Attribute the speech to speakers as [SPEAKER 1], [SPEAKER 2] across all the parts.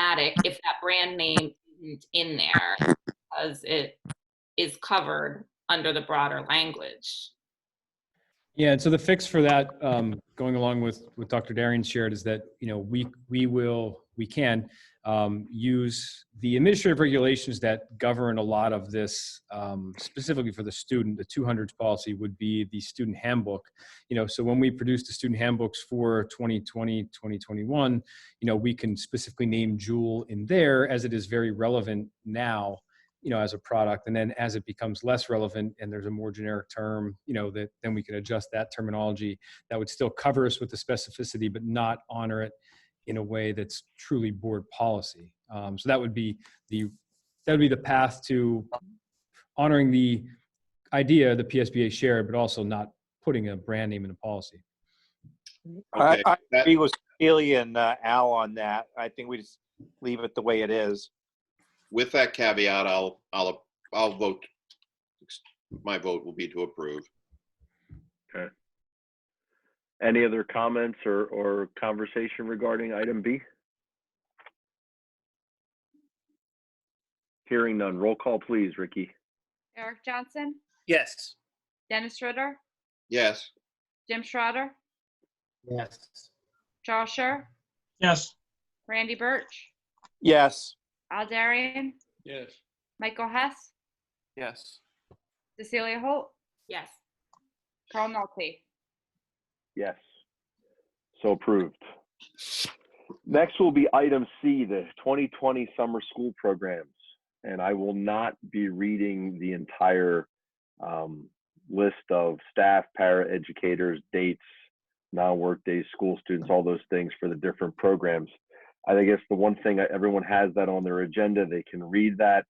[SPEAKER 1] problematic if that brand name isn't in there because it is covered under the broader language.
[SPEAKER 2] Yeah, and so the fix for that, um, going along with what Dr. Darian shared, is that, you know, we, we will, we can um, use the administrative regulations that govern a lot of this, um, specifically for the student, the 200s policy would be the student handbook. You know, so when we produce the student handbooks for 2020, 2021, you know, we can specifically name Jewel in there as it is very relevant now you know as a product and then as it becomes less relevant and there's a more generic term you know that then we can adjust that terminology that would still cover us with the specificity but not honor it in a way that's truly board policy um, so that would be the that would be the path to honoring the idea the psba shared but also not putting a brand name in a policy
[SPEAKER 3] I,
[SPEAKER 4] Okay,
[SPEAKER 3] I
[SPEAKER 4] that-
[SPEAKER 3] agree with Celia and uh, Al on that. I think we just leave it the way it is.
[SPEAKER 4] With that caveat, I'll, I'll, I'll vote, my vote will be to approve.
[SPEAKER 5] Any other comments or, or conversation regarding item B? Hearing none. Roll call, please, Ricky.
[SPEAKER 6] Eric Johnson,
[SPEAKER 7] Yes.
[SPEAKER 6] Dennis Ritter,
[SPEAKER 4] Yes,
[SPEAKER 6] Jim Schrader,
[SPEAKER 7] Yes.
[SPEAKER 6] Charles Scher,
[SPEAKER 8] yes,
[SPEAKER 6] Randy Birch,
[SPEAKER 3] Yes,
[SPEAKER 6] Al Darian,
[SPEAKER 7] Yes.
[SPEAKER 6] Michael Hess,
[SPEAKER 7] Yes.
[SPEAKER 6] Cecilia Holt,
[SPEAKER 1] Yes.
[SPEAKER 6] Carl Nolte.
[SPEAKER 5] Yes. So approved. Next will be item C, the 2020 summer school programs. And I will not be reading the entire um, list of staff, para educators, dates, non-work days, school
[SPEAKER 2] Mm-hmm.
[SPEAKER 5] students, all those things for the different programs. I guess the one thing, that everyone has that on their agenda, they can read that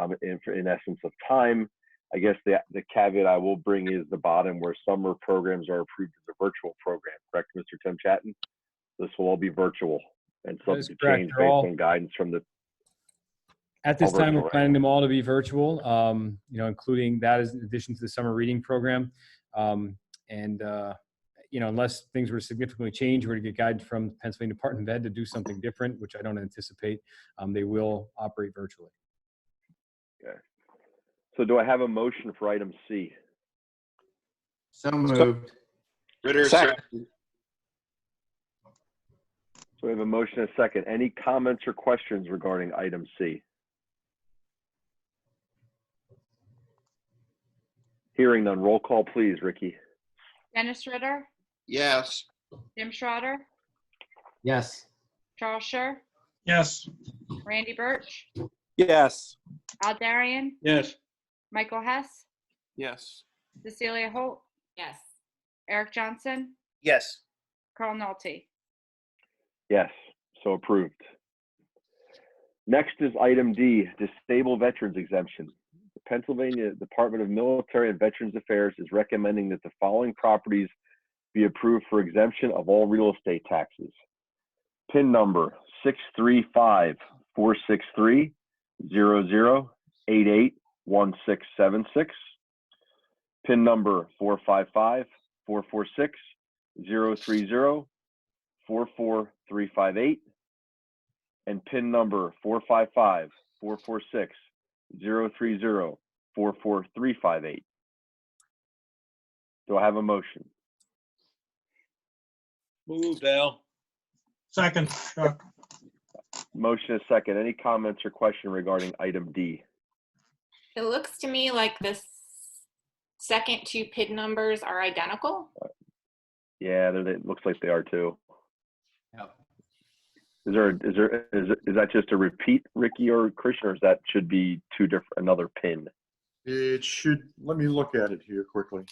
[SPEAKER 5] um, in, in essence of time. I guess the, the caveat I will bring is the bottom where summer programs are approved as a virtual program, correct, Mr. Tim Chatton? This will all be virtual and
[SPEAKER 2] That is
[SPEAKER 5] subject to
[SPEAKER 2] correct.
[SPEAKER 5] change
[SPEAKER 2] They're
[SPEAKER 5] based
[SPEAKER 2] all-
[SPEAKER 5] on guidance from the
[SPEAKER 2] At this time,
[SPEAKER 5] All virtual,
[SPEAKER 2] we're
[SPEAKER 5] right?
[SPEAKER 2] planning them all to be virtual, um, you know, including that is in addition to the summer reading program. Um, and, uh, you know, unless things were significantly changed, we're to get guidance from Pennsylvania Department of Ed to do something different, which I don't anticipate, um, they will operate virtually.
[SPEAKER 5] So do I have a motion for item C?
[SPEAKER 7] So moved.
[SPEAKER 4] Ritter,
[SPEAKER 3] Second.
[SPEAKER 4] second.
[SPEAKER 5] So we have a motion and a second. Any comments or questions regarding item C? Hearing none, roll call please, Ricky.
[SPEAKER 6] Dennis Ritter,
[SPEAKER 4] yes,
[SPEAKER 6] Jim Schrader,
[SPEAKER 7] Yes.
[SPEAKER 6] Charles Scher,
[SPEAKER 8] yes,
[SPEAKER 6] Randy Birch,
[SPEAKER 3] yes,
[SPEAKER 6] Al Darian,
[SPEAKER 7] Yes.
[SPEAKER 6] Michael Hess,
[SPEAKER 7] Yes.
[SPEAKER 6] Cecilia Holt,
[SPEAKER 1] Yes.
[SPEAKER 6] Eric Johnson,
[SPEAKER 7] Yes.
[SPEAKER 6] Carl Nolte.
[SPEAKER 5] Yes, so approved. Next is item D, disabled veterans exemption. The Pennsylvania Department of Military and Veterans Affairs is recommending that the following properties be approved for exemption of all real estate taxes. PIN number 635-463-0088-1676. PIN number 455-446-030 44358 and pin number 455 446 030 44358. Do I have a motion?
[SPEAKER 7] Moved, Al.
[SPEAKER 8] second, Chuck,
[SPEAKER 5] Motion is second. Any comments or question regarding item D?
[SPEAKER 1] It looks to me like this second two PID numbers are identical.
[SPEAKER 5] Yeah, they're- they- it looks like they are too.
[SPEAKER 7] Yep.
[SPEAKER 5] Is there, is there, is, is that just a repeat, Ricky or Christian, or is that should be two different, another pin?
[SPEAKER 9] It should, let me look at it here quickly.